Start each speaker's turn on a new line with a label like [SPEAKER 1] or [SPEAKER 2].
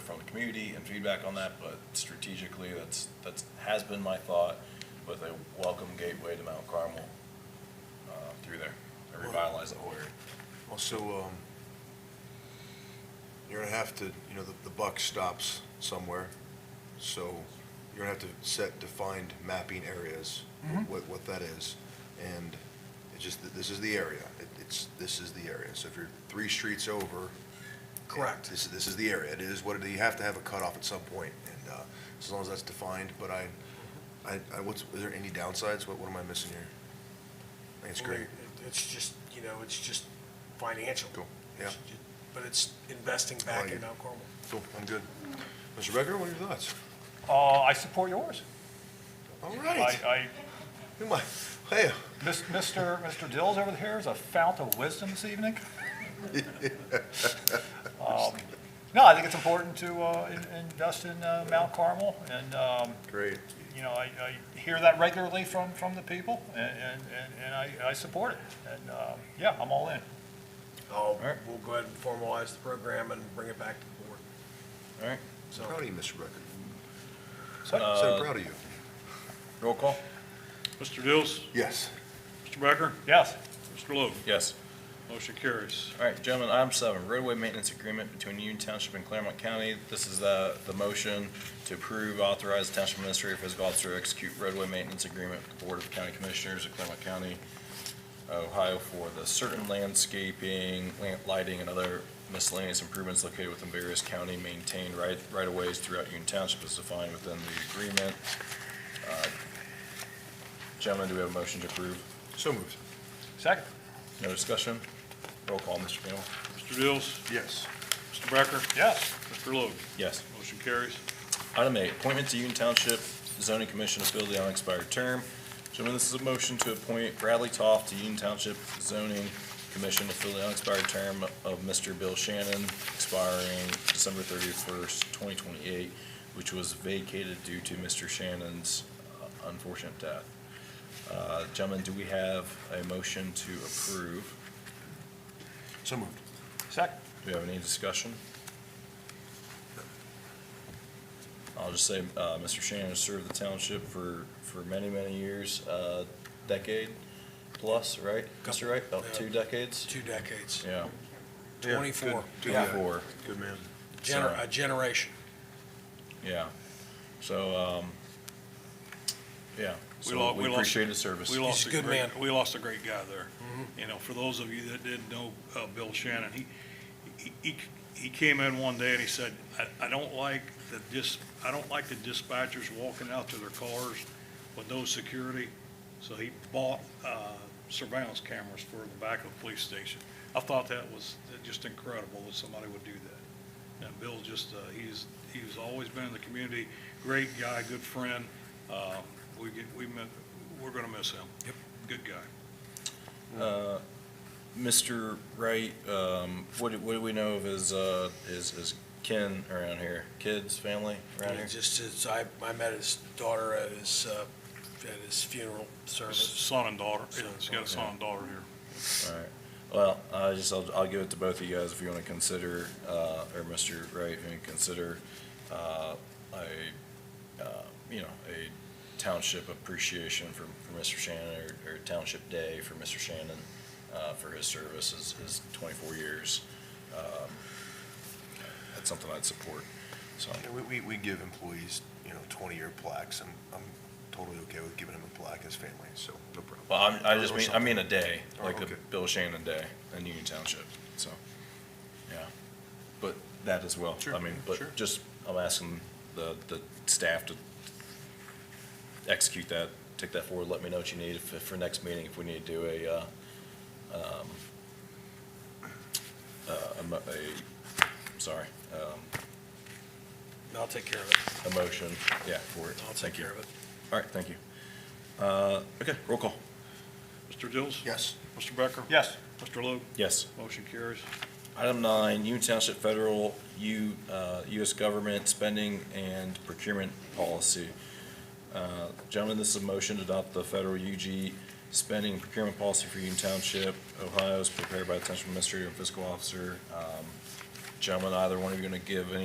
[SPEAKER 1] from the community and feedback on that, but strategically, that's, that's, has been my thought with a welcome gateway to Mount Carmel, uh, through there, to revitalize the whole area.
[SPEAKER 2] Also, um, you're gonna have to, you know, the, the buck stops somewhere, so you're gonna have to set defined mapping areas,
[SPEAKER 3] Mm-hmm.
[SPEAKER 2] what, what that is. And it's just, that this is the area, It- it's, this is the area. So if you're three streets over.
[SPEAKER 3] Correct.
[SPEAKER 2] This is, this is the area, it is what, it- you have to have a cutoff at some point, and, uh, as long as that's defined, but I, I, I, what's, is there any downsides? What, what am I missing here? I think it's
[SPEAKER 3] Well,
[SPEAKER 2] great.
[SPEAKER 3] it- It's just, you know, it's just financial.
[SPEAKER 2] Cool. Yeah.
[SPEAKER 3] But it's investing
[SPEAKER 2] like
[SPEAKER 3] back in
[SPEAKER 2] it.
[SPEAKER 3] Mount Carmel.
[SPEAKER 2] Cool, I'm good. Mr. Becker, what are your thoughts?
[SPEAKER 4] Uh, I support yours.
[SPEAKER 2] All
[SPEAKER 4] I,
[SPEAKER 2] right.
[SPEAKER 4] I,
[SPEAKER 2] Come on. Hey,
[SPEAKER 4] Mis- Mr. Mr. Dills over here is a fount of wisdom this evening. Um, No, I think it's important to, uh, in- invest in, uh, Mount Carmel and, um,
[SPEAKER 2] great.
[SPEAKER 4] you know, I, I hear that regularly from, from the people and, and, and- and I, I support it. And, um, yeah, I'm all in.
[SPEAKER 3] I'll,
[SPEAKER 1] right.
[SPEAKER 3] we'll go ahead and formalize the program and bring it back to the board.
[SPEAKER 1] All right,
[SPEAKER 2] Proud
[SPEAKER 3] So,
[SPEAKER 2] of you, Mr. Becker. Uh, So so proud of you.
[SPEAKER 1] roll call?
[SPEAKER 5] Mr. Dills,
[SPEAKER 2] Yes.
[SPEAKER 5] Mr. Becker,
[SPEAKER 4] Yes,
[SPEAKER 5] Mr. Logue,
[SPEAKER 1] Yes.
[SPEAKER 5] motion carries.
[SPEAKER 1] All right, gentlemen, item seven, roadway maintenance agreement between Union Township and Claremont County. This is the, the motion to approve, authorize the Township Administrator, Physical Officer, to execute roadway maintenance agreement with the Board of County Commissioners of Claremont County, Ohio for the certain landscaping, lan- lighting, and other miscellaneous improvements located within various county maintained right, right-of-ways throughout Union Township as defined within the agreement. Uh, Gentlemen, do we have a motion to approve?
[SPEAKER 2] So moved.
[SPEAKER 4] second,
[SPEAKER 1] No discussion? Roll call, Mr. Campbell.
[SPEAKER 5] Mr. Dills,
[SPEAKER 2] Yes.
[SPEAKER 5] Mr. Becker,
[SPEAKER 4] yes,
[SPEAKER 5] Mr. Logue,
[SPEAKER 1] Yes.
[SPEAKER 5] motion carries.
[SPEAKER 1] Item eight, appointment to Union Township Zoning Commission to fill the unexpired term. Gentlemen, this is a motion to appoint Bradley Toff to Union Township Zoning Commission to fill the unexpired term of Mr. Bill Shannon, expiring December thirty-first, twenty twenty-eight, which was vacated due to Mr. Shannon's uh, unfortunate death. Uh, Gentlemen, do we have a motion to approve?
[SPEAKER 2] So moved.
[SPEAKER 4] second.
[SPEAKER 1] Do we have any discussion? I'll just say, uh, Mr. Shannon has served the township for, for many, many years, uh, decade plus, right? Mr. Wright, about two decades?
[SPEAKER 3] two decades,
[SPEAKER 1] Yeah.
[SPEAKER 2] Yeah,
[SPEAKER 3] 24.
[SPEAKER 2] good, good guy.
[SPEAKER 3] Yeah.
[SPEAKER 1] Four,
[SPEAKER 2] Good man.
[SPEAKER 3] Gener- a generation.
[SPEAKER 1] yeah. So, um, yeah.
[SPEAKER 5] We
[SPEAKER 1] So
[SPEAKER 5] lo- we
[SPEAKER 1] We
[SPEAKER 5] lost-
[SPEAKER 1] appreciate his service.
[SPEAKER 5] We lost
[SPEAKER 3] a good
[SPEAKER 5] great-
[SPEAKER 3] man. Mm-hmm.
[SPEAKER 5] We lost a great guy there. You know, for those of you that didn't know uh, Bill Shannon, he, he- he, he came in one day and he said, I, I don't like the dis, I don't like the dispatchers walking out to their cars with no security. So he bought uh, surveillance cameras for the back of the police station. I thought that was just incredible that somebody would do that. And Bill just, uh, he's, he's always been in the community, great guy, good friend. Um, We get, we met, we're gonna miss him. Yep. Good guy.
[SPEAKER 1] Mr. Wright, um, what do, what do we know of his, uh, his, his kin around here? Kids, family around here?
[SPEAKER 3] And Just as, I, I met his daughter at his, uh, at his funeral
[SPEAKER 5] His
[SPEAKER 3] service.
[SPEAKER 5] Son and daughter, yeah, he's got a son and daughter here.
[SPEAKER 1] All right. Well, I just, I'll, I'll give it to both of you guys if you want to consider, uh, or Mr. Wright, if you can consider, uh, a, uh, you know, a township appreciation for, for Mr. Shannon, or, or Township Day for Mr. Shannon, uh, for his service, his, his twenty-four years. Um, That's something I'd support, so.
[SPEAKER 2] You know, We, we, we give employees, you know, twenty-year plaques. I'm, I'm totally okay with giving him a plaque, his family, so no problem.
[SPEAKER 1] Well, I'm, I just
[SPEAKER 2] Or
[SPEAKER 1] mean, I
[SPEAKER 2] something.
[SPEAKER 1] mean a day,
[SPEAKER 2] Oh,
[SPEAKER 1] like the
[SPEAKER 2] okay.
[SPEAKER 1] Bill Shannon Day in Union Township, so, yeah. But that as well,
[SPEAKER 2] Sure,
[SPEAKER 1] I mean,
[SPEAKER 2] sure.
[SPEAKER 1] but just, I'm asking the, the staff to execute that, take that forward, let me know what you need if, if for next meeting, if we need to do a, uh, um, uh, a mo- a, sorry, um,
[SPEAKER 3] I'll take care of it.
[SPEAKER 1] a motion, yeah, for it.
[SPEAKER 3] I'll take
[SPEAKER 1] Thank you.
[SPEAKER 3] care of it.
[SPEAKER 1] All right, thank you. Uh, okay, roll call,
[SPEAKER 5] Mr. Dills?
[SPEAKER 2] Yes.
[SPEAKER 5] Mr. Becker?
[SPEAKER 4] Yes,
[SPEAKER 5] Mr. Logue?
[SPEAKER 1] yes.
[SPEAKER 5] Motion carries.
[SPEAKER 1] Item nine, Union Township Federal U, uh, U.S. Government Spending and Procurement Policy. Uh, Gentlemen, this is a motion to adopt the federal UG spending and procurement policy for Union Township, Ohio, as prepared by the Township Administrator and Fiscal Officer. Um, Gentlemen, either one of you going to give any